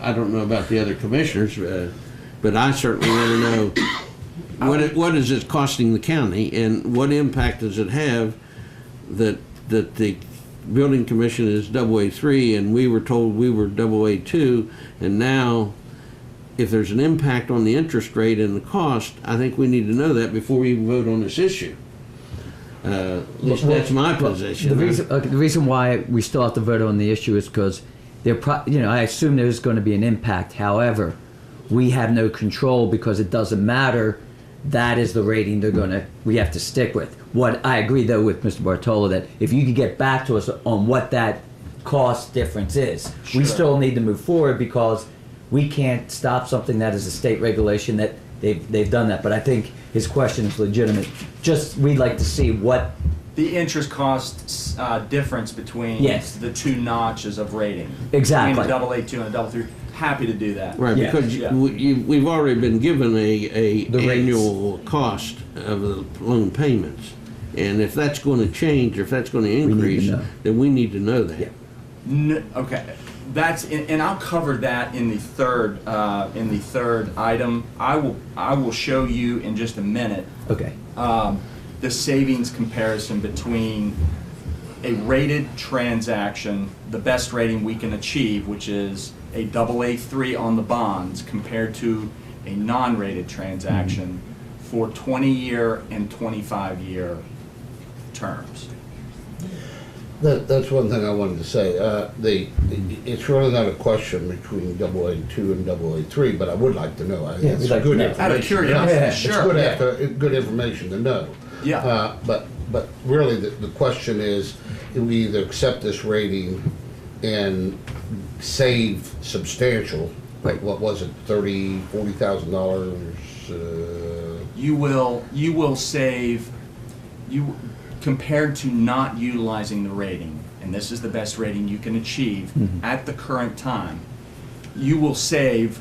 I don't know about the other commissioners, uh, but I certainly want to know what it, what is it costing the county and what impact does it have that that the building commission is double A three and we were told we were double A two and now if there's an impact on the interest rate and the cost, I think we need to know that before we even vote on this issue. Uh, at least that's my position. The reason, okay, the reason why we still have to vote on the issue is because there, pro- you know, I assume there's going to be an impact. However, we have no control because it doesn't matter. That is the rating they're going to. We have to stick with. What I agree though with Mr. Bartolo that if you could get back to us on what that cost difference is, we still need to move forward because we can't stop something that is a state regulation that they've they've done that. But I think his question is legitimate. Just we'd like to see what The interest cost uh, difference between Yes. the two notches of rating. Exactly. Between a double A two and a double three. Happy to do that. Right, Yeah. because you- Yeah. we- you, we've already been given a, The a rates. annual cost of the loan payments. And if that's gonna change, or if that's gonna to increase, know. then we need to know that. N- okay, that's and, and I'll cover that in the third uh, in the third item. I will I will show you in just a minute okay. um, the savings comparison between a rated transaction, the best rating we can achieve, which is a double A three on the bonds, compared to a non-rated transaction for 20-year and 25-year terms. That, that's one thing I wanted to say. Uh, the, it's really not a question between double A two and double A three, but I would like to know. I think Yeah, it's we'd like to good know. Out Out of information. curiosity, Yeah, it's sure. It's good, after, good information to know. Yeah. Uh, but, but really, the, the question is, do we either accept this rating and save substantial, like what was it, thirty, forty thousand dollars? Uh, you will you will save you compared to not utilizing the rating and this is the best rating you can achieve Mm-hmm. at the current time you will save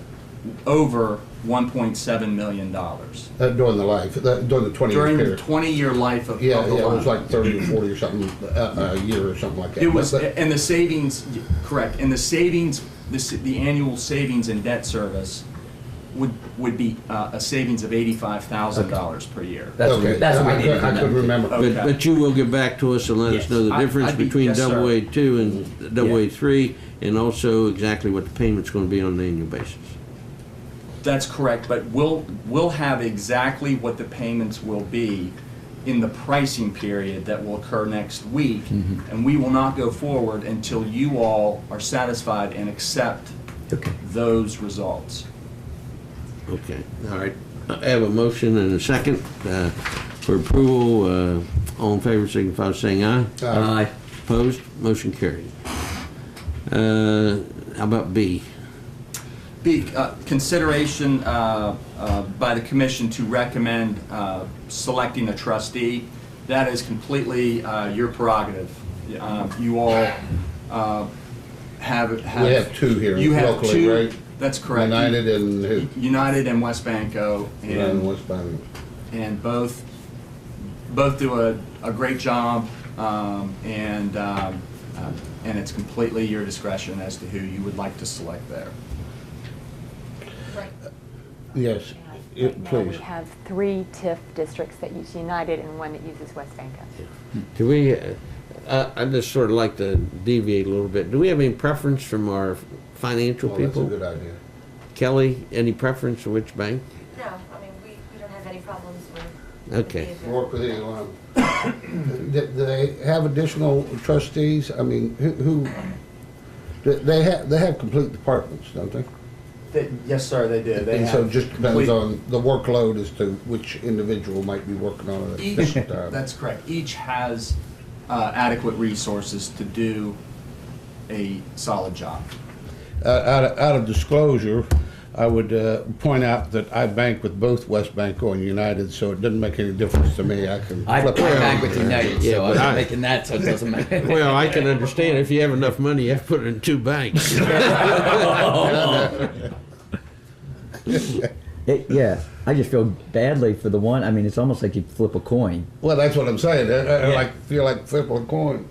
over 1.7 million dollars uh, during the life, uh, during the twenty-year during period. the 20 year life of, Yeah, of the yeah, it loan. was like thirty or forty or something, uh, a year or something like that. it was But- and the savings correct and the savings the, s- the annual savings in debt service would would be uh, a savings of $85,000 per year That's okay, what, that's what I we need could- to I know. could remember. But, Okay. but you will get back to us and let us Yes. know the I- difference I'd be- between yes, sir. double A two and double A three, and also exactly what the payment's gonna be on an annual basis. That's correct, but we'll, we'll have exactly what the payments will be in the pricing period that will occur next week. Mm-hmm. And we will not go forward until you all are satisfied and accept Okay. those results. Okay, all right. I have a motion and a second, uh, for approval, uh, all in favor, signify by saying aye. Uh, Aye. Opposed? Motion carried. Uh, How about B? Be, uh, consideration, uh, uh, by the commission to recommend, uh, selecting a trustee, that is completely, uh, your prerogative. Uh, you all, uh, have, have. We have two here You have locally, two- right? That's correct. United and his, United and West Banco, and and, West Bank. and both, both do a, a great job, um, and, um, uh, and it's completely your discretion as to who you would like to select there. Right. Yes, Right it- now, we please. have three TIF districts that use United and one that uses West Banco. Do we, uh, I I just sort of like to deviate a little bit. Do we have any preference from our financial Well, that's a people? good idea. Kelly, any preference for which bank? No, I mean, we, we don't have any problems with. Okay. with the- Work with either one. Do do they have additional trustees? I mean, who- who, do they have, they have complete departments, don't they? yes, sir, they do. And so it just depends on the workload as to which individual might be working on it at Each, this time. that's correct. Each has uh, adequate resources to do a solid job. Uh, out, of, out of disclosure, I would uh, point out that I bank with both West Banco and United, so it doesn't make any difference to me. I can I, I flip back around. with United, Yeah, so but I- I'm making that, so it doesn't matter. Well, I can understand if you have enough money, you have to put it in two banks. It, yeah, I just feel badly for the one. I mean, it's almost like you flip a coin, Well, that's what I'm saying. I, I- I Yeah. like feel like flipping a coin.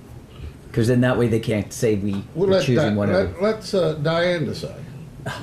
because then that way they can't say we We'll are let, choosing Di- whatever. let, us uh, Diane decide.